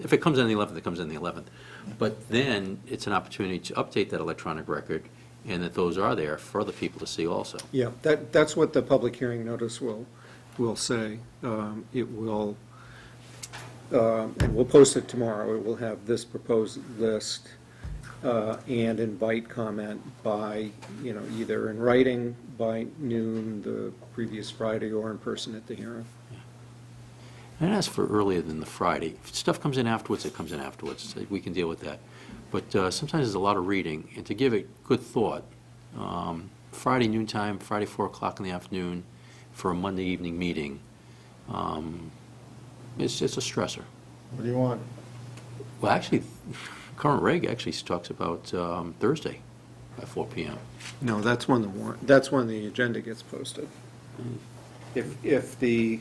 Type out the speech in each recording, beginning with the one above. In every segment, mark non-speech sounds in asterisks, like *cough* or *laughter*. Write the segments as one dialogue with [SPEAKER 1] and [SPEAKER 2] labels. [SPEAKER 1] If it comes in the 11th, it comes in the 11th. But then, it's an opportunity to update that electronic record, and that those are there for other people to see also.
[SPEAKER 2] Yeah, that, that's what the public hearing notice will, will say. Um, It will, um, and we'll post it tomorrow. It will have this proposed list uh, and invite comment by, you know, either in writing by noon the previous Friday or in person at the hearing.
[SPEAKER 1] And ask for earlier than the Friday. If stuff comes in afterwards, it comes in afterwards. So We can deal with that. But uh, sometimes there's a lot of reading, and to give it good thought, um, Friday noon time, Friday 4 o'clock in the afternoon for a Monday evening meeting, um, it's, it's a stressor.
[SPEAKER 3] What do you want?
[SPEAKER 1] Well, actually, *laughs* current reg actually talks about um, Thursday at 4 PM.
[SPEAKER 2] No, that's when the warrant, that's when the agenda gets posted.
[SPEAKER 1] Mm.
[SPEAKER 2] If, if the,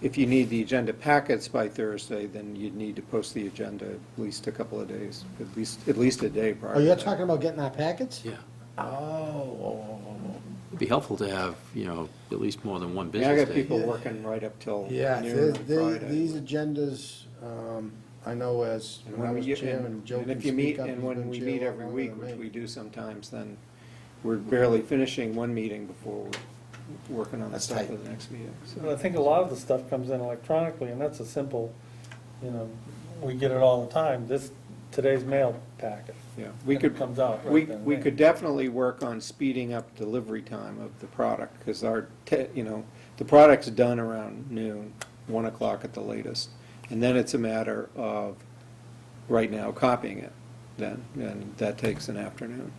[SPEAKER 2] if you need the agenda packets by Thursday, then you'd need to post the agenda at least a couple of days, at least, at least a day prior.
[SPEAKER 3] Oh,
[SPEAKER 2] to
[SPEAKER 3] you're
[SPEAKER 2] that.
[SPEAKER 3] talking about getting our packets?
[SPEAKER 1] Yeah.
[SPEAKER 3] Oh, oh, oh,
[SPEAKER 1] It'd be helpful to have, you know, at least more than one
[SPEAKER 2] I mean, I
[SPEAKER 1] business
[SPEAKER 2] got
[SPEAKER 1] day.
[SPEAKER 2] people working right up till
[SPEAKER 3] oh.
[SPEAKER 2] noon
[SPEAKER 3] Yeah,
[SPEAKER 2] on
[SPEAKER 3] the- the-
[SPEAKER 2] Friday.
[SPEAKER 3] these agendas, um, I know as
[SPEAKER 2] And
[SPEAKER 3] when I
[SPEAKER 2] when
[SPEAKER 3] was
[SPEAKER 2] you-
[SPEAKER 3] chair
[SPEAKER 2] and-
[SPEAKER 3] and Joe
[SPEAKER 2] and
[SPEAKER 3] can
[SPEAKER 2] if you meet-
[SPEAKER 3] speak up.
[SPEAKER 2] And
[SPEAKER 3] he's
[SPEAKER 2] when
[SPEAKER 3] been
[SPEAKER 2] we
[SPEAKER 3] chair
[SPEAKER 2] meet
[SPEAKER 3] a lot
[SPEAKER 2] every
[SPEAKER 3] longer
[SPEAKER 2] week,
[SPEAKER 3] than
[SPEAKER 2] which
[SPEAKER 3] me.
[SPEAKER 2] we do sometimes, then we're barely finishing one meeting before we're working on the
[SPEAKER 3] That's
[SPEAKER 2] stuff
[SPEAKER 3] tight.
[SPEAKER 2] for the next meeting. so.
[SPEAKER 4] And I think a lot of the stuff comes in electronically, and that's a simple, you know, we get it all the time, this, today's mail packet.
[SPEAKER 2] Yeah, we
[SPEAKER 4] And it
[SPEAKER 2] could,
[SPEAKER 4] comes out right
[SPEAKER 2] we,
[SPEAKER 4] then and
[SPEAKER 2] we
[SPEAKER 4] there.
[SPEAKER 2] could definitely work on speeding up delivery time of the product, because our, te- you know, the product's done around noon, one o'clock at the latest, and then it's a matter of, right now, copying it, then, and that takes an afternoon.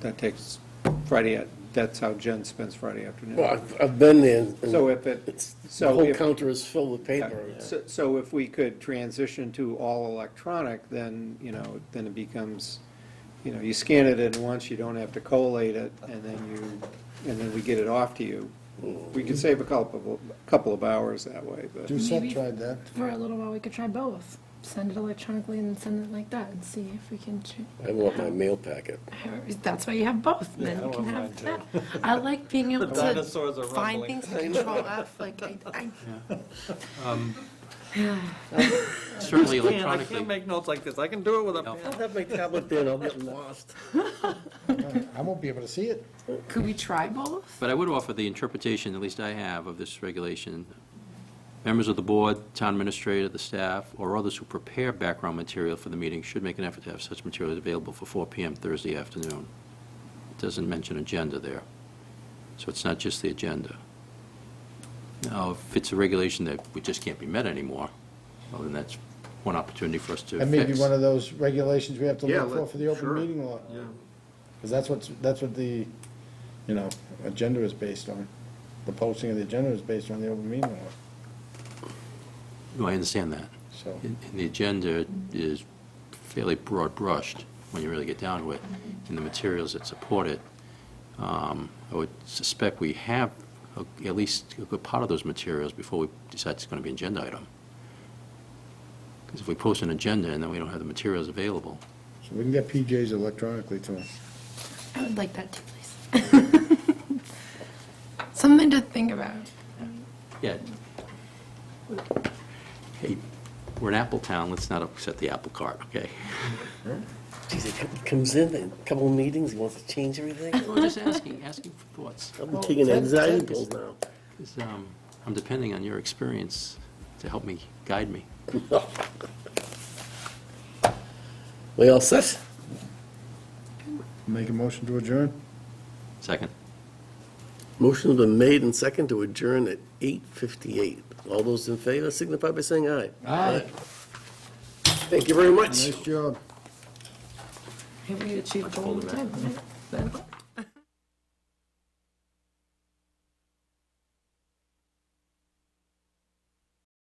[SPEAKER 2] That takes Friday, at- that's how Jen spends Friday
[SPEAKER 5] Well,
[SPEAKER 2] afternoon.
[SPEAKER 5] I've, I've been there. and
[SPEAKER 2] So if it,
[SPEAKER 5] it's- The
[SPEAKER 2] so
[SPEAKER 5] whole
[SPEAKER 2] if.
[SPEAKER 5] counter is filled with
[SPEAKER 2] Yeah,
[SPEAKER 5] paper.
[SPEAKER 2] So so if we could transition to all electronic, then, you know, then it becomes, you know, you scan it in once, you don't have to collate it, and then you, and then we get it off to you. We could save a couple, a couple of hours that way, but,
[SPEAKER 3] Doucette
[SPEAKER 6] Maybe-
[SPEAKER 3] tried that.
[SPEAKER 6] For a little while, we could try both. Send it electronically and send it like that and see if we can. ch-
[SPEAKER 5] I want my mail packet.
[SPEAKER 6] *laughs* That's why you have both.
[SPEAKER 4] Yeah,
[SPEAKER 6] Then
[SPEAKER 4] I
[SPEAKER 6] you can
[SPEAKER 4] want
[SPEAKER 6] have
[SPEAKER 4] mine
[SPEAKER 6] that. I like
[SPEAKER 4] *laughs*
[SPEAKER 6] being able
[SPEAKER 4] dinosaurs are
[SPEAKER 6] to find
[SPEAKER 4] rumbling.
[SPEAKER 6] things to control F. Like I, I, *laughs*
[SPEAKER 1] Certainly
[SPEAKER 4] Man, I
[SPEAKER 1] electronically.
[SPEAKER 4] can't make notes like this, I can do it with a
[SPEAKER 1] No.
[SPEAKER 4] pen.
[SPEAKER 5] have my tablet there, I'll get lost.
[SPEAKER 3] I won't be able to see it.
[SPEAKER 6] could we try both?
[SPEAKER 1] But I would offer the interpretation, at least I have, of this regulation. Members of the board, town administrator, the staff, or others who prepare background material for the meeting should make an effort to have such materials available for 4 PM Thursday afternoon. It doesn't mention agenda there, so it's not just the agenda. Now, if it's a regulation that we just can't be met anymore, well, then that's one opportunity for us to fix.
[SPEAKER 3] That may be one of those regulations we have to
[SPEAKER 2] Yeah,
[SPEAKER 3] look for
[SPEAKER 2] let-
[SPEAKER 3] for the open
[SPEAKER 2] sure.
[SPEAKER 3] meeting law.
[SPEAKER 2] yeah.
[SPEAKER 3] Because that's what's, that's what the, you know, agenda is based on. The posting of the agenda is based on the open meeting law,
[SPEAKER 1] No, I understand that.
[SPEAKER 3] so.
[SPEAKER 1] And and the agenda is fairly broad brushed when you really get down to it, and the materials that support it. um, I would suspect we have a- at least a good part of those materials before we decide it's going to be an agenda item. Because if we post an agenda and then we don't have the materials available,
[SPEAKER 3] So we can get PJs electronically to them.
[SPEAKER 6] I would like that too, please. *laughs* Something to think about.
[SPEAKER 1] yeah. Hey, we're an apple town, let's not upset the apple cart, okay?
[SPEAKER 5] Geez, he com- comes in, a couple of meetings, he wants to change everything.
[SPEAKER 1] We're just asking, asking for thoughts.
[SPEAKER 5] I'm taking anxiety pills now.
[SPEAKER 1] Because, um, I'm depending on your experience to help me, guide me.
[SPEAKER 5] We all set?
[SPEAKER 3] Make a motion to adjourn?
[SPEAKER 1] Second.
[SPEAKER 5] Motion's been made and second to adjourn at 8:58. All those in favor signify by saying aye.
[SPEAKER 3] Aye.
[SPEAKER 5] Thank you very much.
[SPEAKER 3] Nice job.
[SPEAKER 6] Maybe we achieved a
[SPEAKER 1] Hold
[SPEAKER 6] little
[SPEAKER 1] it
[SPEAKER 6] time.
[SPEAKER 1] back.
[SPEAKER 6] right? Nine o'clock.